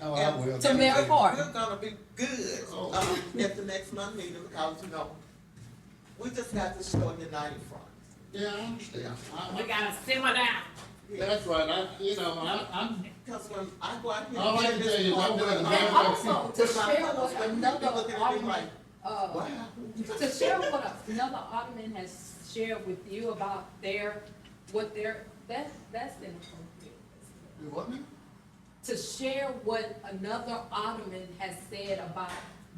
Oh, I And will. to Thank Mary you. Park. We're gonna be good, uh, at the next month meeting, because, you know, we just got to show a united front. Yeah, I understand. I- We I- gotta simmer down. That's right, I, you know, I, I'm, Because when I go out here. All I and can get tell you is I this wouldn't part have done, also, to share with another alderman, uh, Wow. to share what another alderman has shared with you about their, what their, that's, that's inappropriate. you want me? To share what another alderman has said about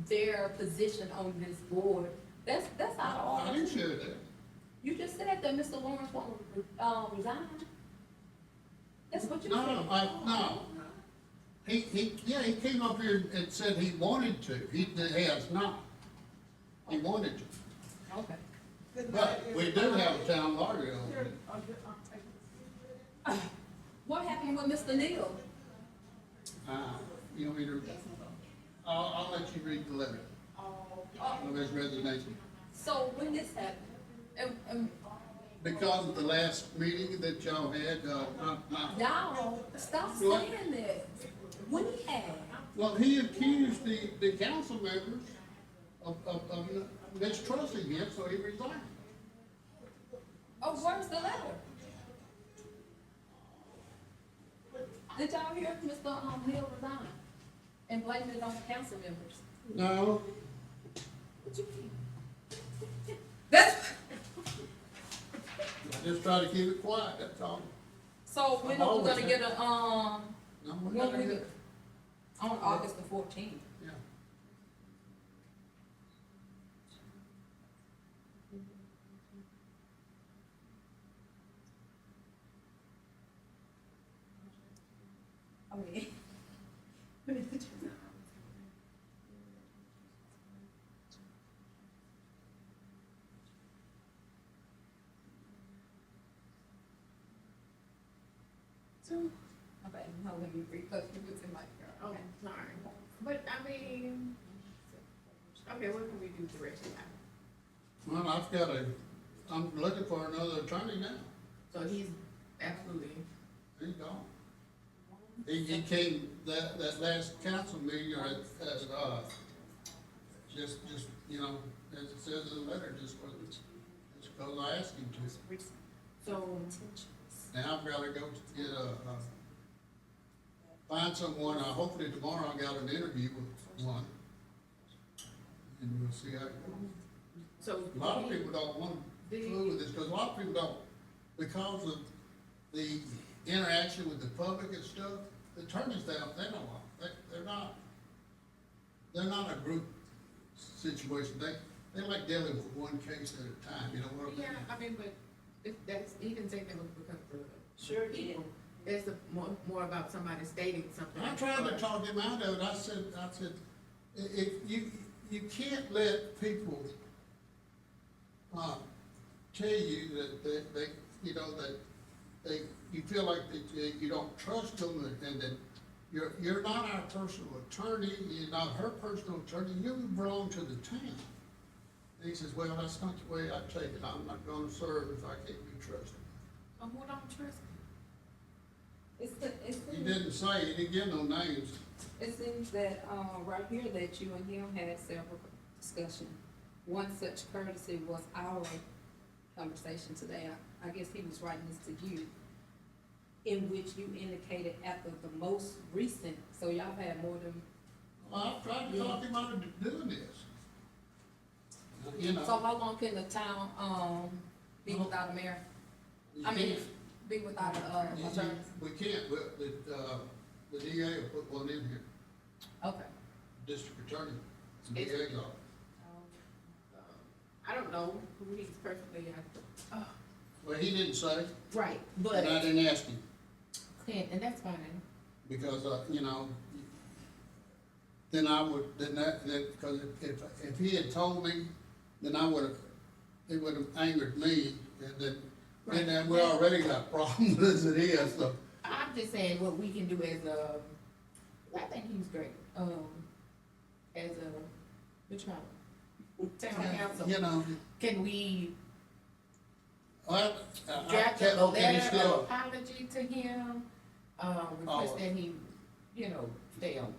their position on this board, that's, that's out of I order. didn't share that. You just said that Mr. Lawrence won't, um, resign. That's what you No, said. no, I, no. He, he, yeah, he came up here and said he wanted to, he has not. He wanted to, Okay. Good night, but we do everybody. have a town lawyer over there. What happened with Mr. Neal? Uh, you want me to? I'll, I'll let you read the letter Uh, of his resignation. So when uh, um, this happened, and, and Because of the last meeting that y'all had, uh, not, not y'all, stop What? saying that. When he had, Well, he accused the, the council members of, of, of mistrusting him, so he resigned. oh, where's the letter? Did y'all hear Mr. Um, Neal resign and blamed it on the council members? No. What you mean? That's, I just try to keep it quiet, that's all. so when are we gonna get a, um, No, we're when not we, here. on August the fourteenth? Yeah. I mean. Okay, now let me repost it in my Oh, car. sorry. But I mean, okay, what can we do the rest of that? Well, I've got a, I'm looking for another attorney now. So he's absolutely, He's gone. He, he came, that, that last council meeting, or at, at, uh, just, just, you know, as it says in the letter, just wasn't, just because I asked him to. so, Now I've gotta go to get a, uh, find someone, uh, hopefully tomorrow I got an interview with one. And we'll see how, it goes. so. a lot of people don't want to deal with this, cause a lot of people don't, because of the interaction with the public and stuff, the attorneys down, they don't, want- they, they're not, they're not a group situation, they, they like dealing with one case at a time, you know what I mean? Yeah, I mean, but if that's, he didn't say that was because the. Sure he did. That's the more, more about somebody stating something. I tried to talk him out of it, I said, I said, i- if you, you can't let people, uh, tell you that, that, they, you know, that, they, you feel like that you- you don't trust them and- and that you're, you're not our personal attorney, you're not her personal attorney, you belong to the town. And he says, well, that's not the way I take it, I'm not gonna serve if I can't be trusted. But who don't trust It's the, it's the. He didn't say, he didn't give no names. It seems that, uh, right here that you and him had several discussion. One such courtesy was our conversation today. I, I guess he was writing this to you, in which you indicated after the most recent, so y'all had more than, Well, I've tried to talk him out of doing this. You so know. Uh-huh. how long can the town, um, be without a mayor? I mean, be without a, uh, You- you- attorney? We can't, but, the, uh, the DA will put one in here, Okay. district attorney, the DA's office. Um, I don't know who he's personally, Well, he didn't say, Right, and I didn't ask him, And that's fine. because, uh, you know, then I would, then that, then, because if, if he had told me, then I would've, it would've angered me, and then, and then we already got problems as it is, so. I'm just saying what we can do as a, I think he was great, um, as a, which one? Town council, You know, can we Well, I- I draft can't- a Uh, okay, he's letter of still, apology to him? Uh, Oh. request that he, you know, stay on.